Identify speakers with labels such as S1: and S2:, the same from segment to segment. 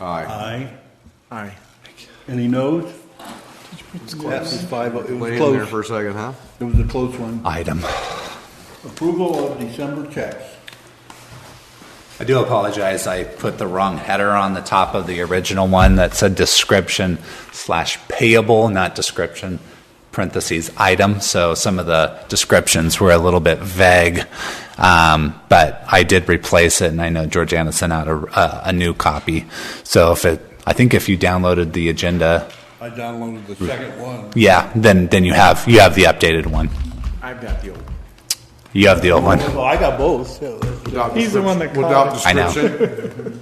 S1: Aye.
S2: Aye.
S3: Aye.
S2: Any noes?
S3: It's close. Five, oh- it was
S1: Wait in there
S3: close.
S1: for a second, huh?
S3: It was a close one.
S4: item.
S2: Approval of December checks.
S4: I do apologize, I put the wrong header on the top of the original one that said description slash payable, not description, parentheses, item, so some of the descriptions were a little bit vague. Um, But I did replace it, and I know Georgiana sent out a, a- a new copy. So if it, I think if you downloaded the agenda,
S2: I downloaded the second one.
S4: yeah, then, then you have, you have the updated one.
S3: I've got the old.
S4: You have the old one.
S3: Well, I got both, so.
S1: Without
S5: He's the one that
S1: description- Without
S4: I know.
S1: description.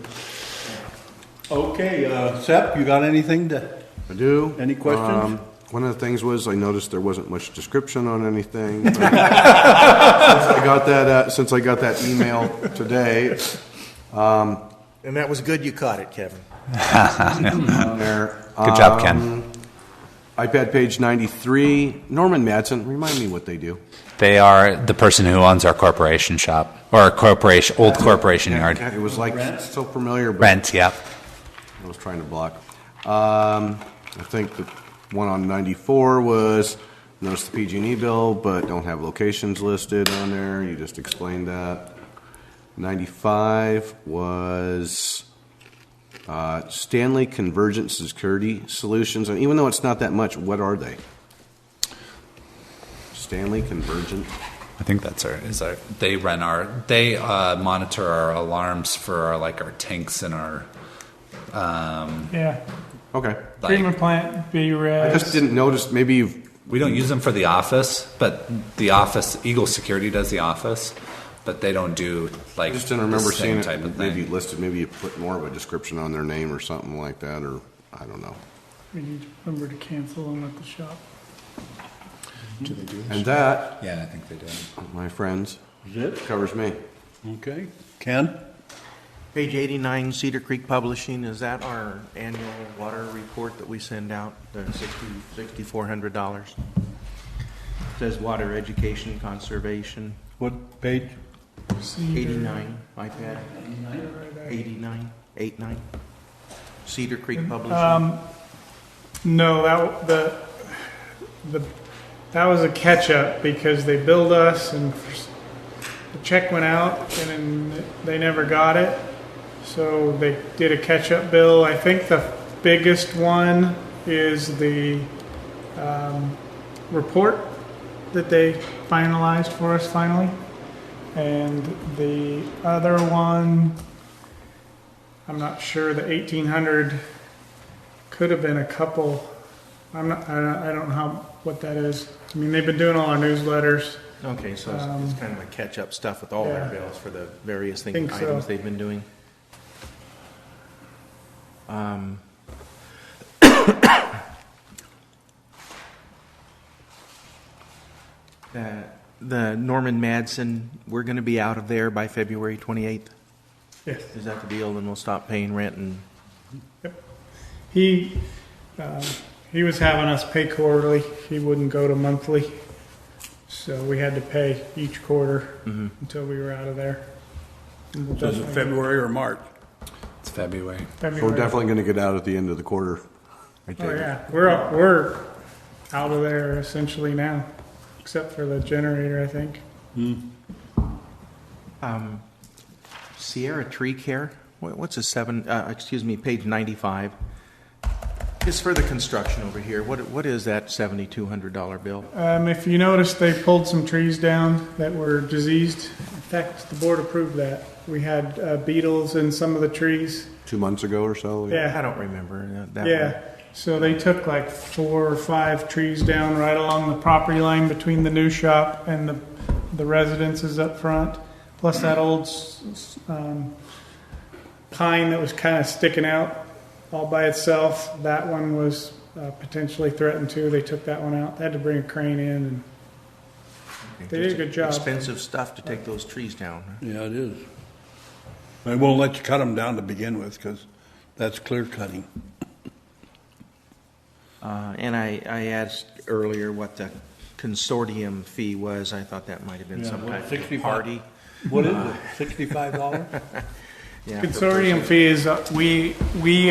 S2: Okay, uh, Sep, you got anything to,
S1: I do.
S2: Any questions?
S1: Um, One of the things was, I noticed there wasn't much description on anything. but Since I got that, uh, since I got that email today,
S3: And that was good you caught it, Kevin.
S1: on um, there.
S4: Good job, Ken.
S1: um, iPad page ninety-three, Norman Madsen, remind me what they do.
S4: They are the person who owns our corporation shop or our corporation, old corporation yard.
S1: It was like, so familiar, but
S4: Rent, yep.
S1: I was trying to block. Um, I think the one on 94 was, notice the PG&E E bill, but don't have locations listed on there. You just explained that. 95 was uh, Stanley Convergent Security Solutions. And even though it's not that much, what are they? Stanley Convergent.
S4: I think that's our, is our, they run our, they uh, monitor our alarms for our, like our tanks and our,
S5: Yeah.
S1: Okay.
S4: like,
S5: Treatment plant,
S1: I just
S5: B-Res.
S1: didn't notice, maybe you've,
S4: we don't use them for the office, but the office, Eagle Security does the office, but they don't do
S1: I
S4: like
S1: just didn't remember
S4: the
S1: seeing
S4: same type of
S1: it, maybe
S4: thing.
S1: listed, maybe you put more of a description on their name or something like that, or, I don't know.
S5: We need to remember to cancel them at the shop.
S1: And that,
S4: Yeah, I think they do.
S1: my friends,
S2: is it?
S1: covers me.
S2: Okay. Ken?
S3: Page 89, Cedar Creek Publishing, is that our annual water report that we send out, the sixty- $6,400? Says water education conservation,
S2: What page?
S3: 89, iPad, 89, 89, Cedar Creek Publishing.
S5: Um, no, that, the, the, that was a catch-up because they billed us and first- the check went out and then they never got it. So they did a catch-up bill. I think the biggest one is the, um, report that they finalized for us finally. And the other one, I'm not sure, the eighteen hundred could have been a couple. I'm not, I don't, I don't know how, what that is. I mean, they've been doing all our newsletters.
S3: Okay, so it's it's kind of a catch-up stuff with all their
S5: Um, yeah.
S3: bills for the various things,
S5: Think so.
S3: items they've been doing. Um, The the Norman Madsen, we're going to be out of there by February 28th.
S5: Yes.
S3: Is that the deal? Then we'll stop paying rent and,
S5: He, um, he was having us pay quarterly. He wouldn't go to monthly. So we had to pay each quarter until we were out of there. And we'll
S2: Does it
S5: definitely-
S2: February or March?
S4: It's February.
S1: We're
S5: February.
S1: definitely gonna get out at the end of the quarter. I
S5: Oh,
S1: take it.
S5: yeah. We're, we're out of there essentially now, except for the generator, I think.
S3: um, Sierra Tree Care, Wha- what's a seven, uh, excuse me, page 95? It's for the construction over here. What, what is that $7,200 bill?
S5: Um, if you notice, they pulled some trees down that were diseased. In fact, the board approved that. We had uh, beetles in some of the trees.
S1: Two months ago or so?
S3: I
S5: Yeah,
S3: don't remember uh, that one.
S5: yeah. So they took like four or five trees down right along the property line between the new shop and the, the residences up front. Plus that old s- s- um, pine that was kind of sticking out all by itself. That one was uh, potentially threatened too. They took that one out. They had to bring a crane in and They did a good job.
S3: Expensive stuff to take those trees down. huh?
S2: Yeah, it is. They won't let you cut them down to begin with, because that's clear cutting.
S3: Uh, And I, I asked earlier what the consortium fee was. I thought that might have been
S2: Yeah,
S3: some
S2: well,
S3: type of
S2: 65.
S3: party.
S2: What is it, sixty-five dollars?
S3: Yeah, for-
S5: Consortium fees, uh, we, we